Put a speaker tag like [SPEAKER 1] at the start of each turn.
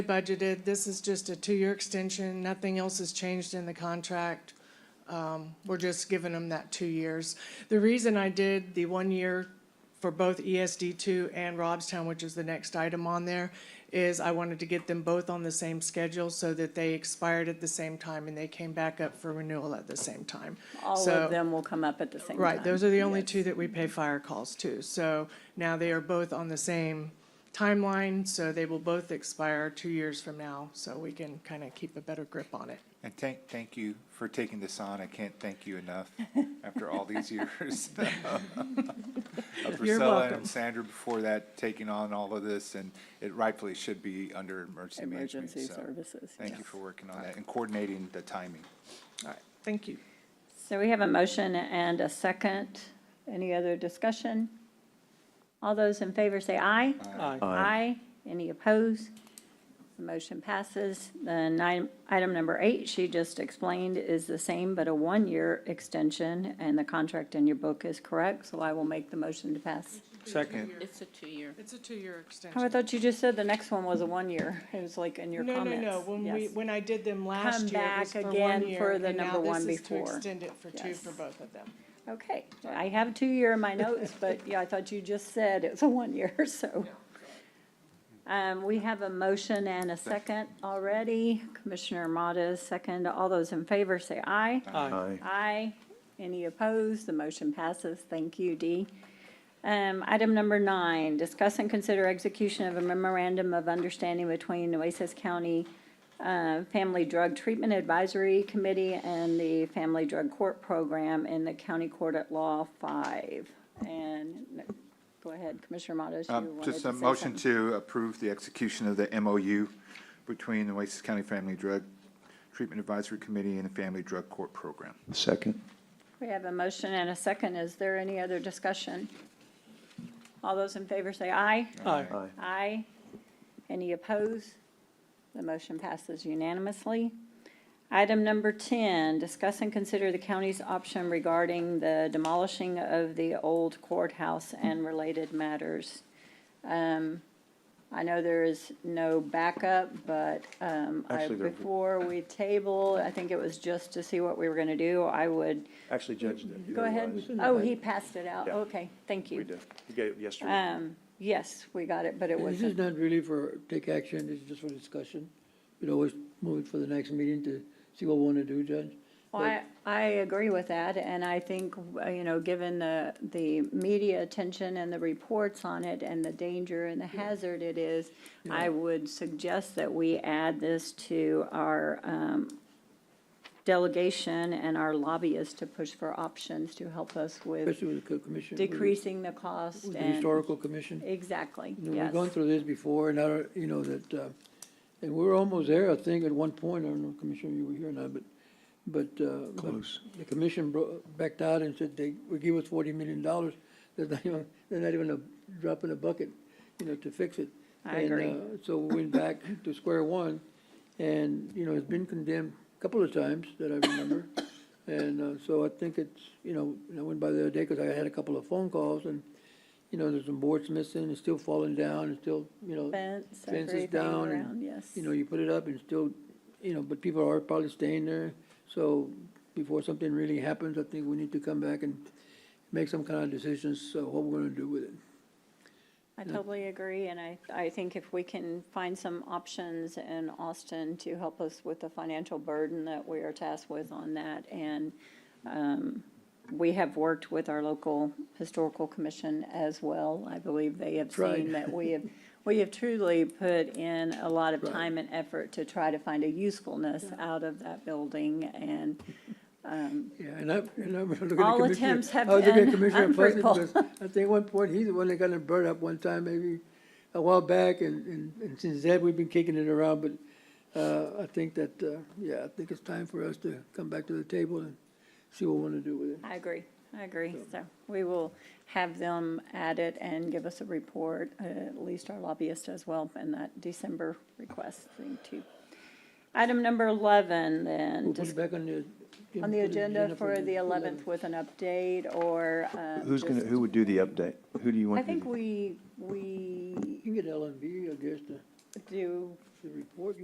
[SPEAKER 1] budgeted, this is just a two-year extension, nothing else has changed in the contract. Um, we're just giving them that two years. The reason I did the one year for both ESD two and Robstown, which is the next item on there, is I wanted to get them both on the same schedule so that they expired at the same time and they came back up for renewal at the same time.
[SPEAKER 2] All
[SPEAKER 1] So-
[SPEAKER 2] of them will come up at the same time.
[SPEAKER 1] Right, those are the only two that we pay fire calls to. So now they are both on the same timeline, so they will both expire two years from now, so we can kind of keep a better grip on it.
[SPEAKER 3] And thank, thank you for taking this on. I can't thank you enough after all these years. Of Priscilla
[SPEAKER 1] welcome.
[SPEAKER 3] and Sandra before that, taking on all of this, and it rightfully should be under emergency management.
[SPEAKER 2] Emergency
[SPEAKER 3] so
[SPEAKER 2] services,
[SPEAKER 3] Thank you
[SPEAKER 2] yes.
[SPEAKER 3] for working on that and coordinating the timing.
[SPEAKER 1] All right, thank you.
[SPEAKER 2] So we have a motion and a second. Any other discussion? All those in favor say aye.
[SPEAKER 3] Aye.
[SPEAKER 2] Aye. Any opposed? The motion passes. Then nine- item number eight, she just explained, is the same but a one-year extension, and the contract in your book is correct, so I will make the motion to pass.
[SPEAKER 3] Second.
[SPEAKER 4] It's a two-year.
[SPEAKER 1] It's a two-year
[SPEAKER 2] Oh, I
[SPEAKER 1] extension.
[SPEAKER 2] thought you just said the next one was a one-year. It was like in your
[SPEAKER 1] No, no,
[SPEAKER 2] comments.
[SPEAKER 1] no, when we,
[SPEAKER 2] Yes.
[SPEAKER 1] when I did them
[SPEAKER 2] Come
[SPEAKER 1] last year, it was
[SPEAKER 2] back
[SPEAKER 1] for one
[SPEAKER 2] again
[SPEAKER 1] year,
[SPEAKER 2] for the
[SPEAKER 1] and now
[SPEAKER 2] number
[SPEAKER 1] this
[SPEAKER 2] one
[SPEAKER 1] is to
[SPEAKER 2] before.
[SPEAKER 1] extend it for two
[SPEAKER 2] Yes.
[SPEAKER 1] for both of them.
[SPEAKER 2] Okay, I have two-year in my notes, but yeah, I thought you just said it's a one-year, so. Um, we have a motion and a second already. Commissioner Mottas, second. All those in favor say aye.
[SPEAKER 5] Aye.
[SPEAKER 2] Aye. Any opposed? The motion passes. Thank you, Dee. Um, item number nine, discuss and consider execution of a memorandum of understanding between Nueces County uh, Family Drug Treatment Advisory Committee and the Family Drug Court Program in the County Court at Law Five. And, no, go ahead, Commissioner Mottos, you
[SPEAKER 3] Um,
[SPEAKER 2] wanted to say
[SPEAKER 3] Just a
[SPEAKER 2] something.
[SPEAKER 3] motion to approve the execution of the MOU between the Oasis County Family Drug Treatment Advisory Committee and the Family Drug Court Program.
[SPEAKER 5] Second.
[SPEAKER 2] We have a motion and a second. Is there any other discussion? All those in favor say aye.
[SPEAKER 5] Aye.
[SPEAKER 2] Aye. Any opposed? The motion passes unanimously. Item number 10, discuss and consider the county's option regarding the demolishing of the old courthouse and related matters. Um, I know there is no backup, but um, I-
[SPEAKER 5] Actually, there-
[SPEAKER 2] before we table, I think it was just to see what we were going to do, I would,
[SPEAKER 5] Actually, Judge, there
[SPEAKER 2] go ahead.
[SPEAKER 5] was-
[SPEAKER 2] Oh, he passed it out.
[SPEAKER 5] Yeah.
[SPEAKER 2] Okay, thank you.
[SPEAKER 5] We did. You got it yesterday.
[SPEAKER 2] Um, Yes, we got it, but it
[SPEAKER 6] This is
[SPEAKER 2] wasn't.
[SPEAKER 6] not really for take action, it's just for discussion. We'd always move it for the next meeting to see what we want to do, Judge.
[SPEAKER 2] Well, I, I agree with that, and I think, uh, you know, given the, the media attention and the reports on it and the danger and the hazard it is, I would suggest that we add this to our um, delegation and our lobbyists to push for options to help us with
[SPEAKER 6] Especially with the co- commission. with the-
[SPEAKER 2] decreasing the cost
[SPEAKER 6] With the
[SPEAKER 2] and,
[SPEAKER 6] historical commission.
[SPEAKER 2] exactly,
[SPEAKER 6] You know, We've
[SPEAKER 2] yes.
[SPEAKER 6] gone through this before, and I, you know, that, uh, and we were almost there, I think, at one point, I don't know, Commissioner, you were here or not, but, but, uh, but
[SPEAKER 5] Close.
[SPEAKER 6] The commission bro- backed out and said they would give us forty million dollars, they're not even, they're not even a drop in a bucket, you know, to fix it.
[SPEAKER 2] I
[SPEAKER 6] And,
[SPEAKER 2] agree.
[SPEAKER 6] uh, So we went back to square one, and, you know, it's been condemned a couple of times that I remember. And, uh, so I think it's, you know, and I went by the other day, cause I had a couple of phone calls, and, you know, there's some boards missing, it's still falling down, it's still, you know.
[SPEAKER 2] Fence,
[SPEAKER 6] Fences
[SPEAKER 2] everything
[SPEAKER 6] down and,
[SPEAKER 2] around, yes.
[SPEAKER 6] You know, you put it up and still, you know, but people are probably staying there. So before something really happens, I think we need to come back and make some kind of decisions, so what we're gonna do with it. uh,
[SPEAKER 2] I totally agree, and I, I think if we can find some options in Austin to help us with the financial burden that we are tasked with on that, and um, we have worked with our local historical commission as well. I believe they have
[SPEAKER 6] Right.
[SPEAKER 2] seen that we have, we have truly put in a lot of
[SPEAKER 6] Right.
[SPEAKER 2] time and effort to try to find a usefulness out of that building, and
[SPEAKER 6] Yeah, and I, and I'm looking at Commissioner.
[SPEAKER 2] All attempts have
[SPEAKER 6] I was looking at
[SPEAKER 2] been
[SPEAKER 6] Commissioner Pleasant
[SPEAKER 2] unfruitful.
[SPEAKER 6] because I think at one point, he's the one that got it burned up one time, maybe a while back, and, and, and since then, we've been kicking it around, but, uh, I think that, uh, yeah, I think it's time for us to come back to the table and see what we wanna do with it.
[SPEAKER 2] I agree, I agree. So we will have them add it and give us a report, uh, at least our lobbyist as well, and that December request thing too. Item number 11 then,
[SPEAKER 6] We'll put
[SPEAKER 2] dis-
[SPEAKER 6] it back on the.
[SPEAKER 2] on the
[SPEAKER 6] put it
[SPEAKER 2] agenda for the 11th
[SPEAKER 6] 11th.
[SPEAKER 2] with an update or. uh,
[SPEAKER 5] Who's gonna,
[SPEAKER 2] just-
[SPEAKER 5] who would do the update? Who do you want?
[SPEAKER 2] I
[SPEAKER 5] to
[SPEAKER 2] think
[SPEAKER 5] do-
[SPEAKER 2] we, we
[SPEAKER 6] You can get L and B, I guess, to-
[SPEAKER 2] do,
[SPEAKER 6] the report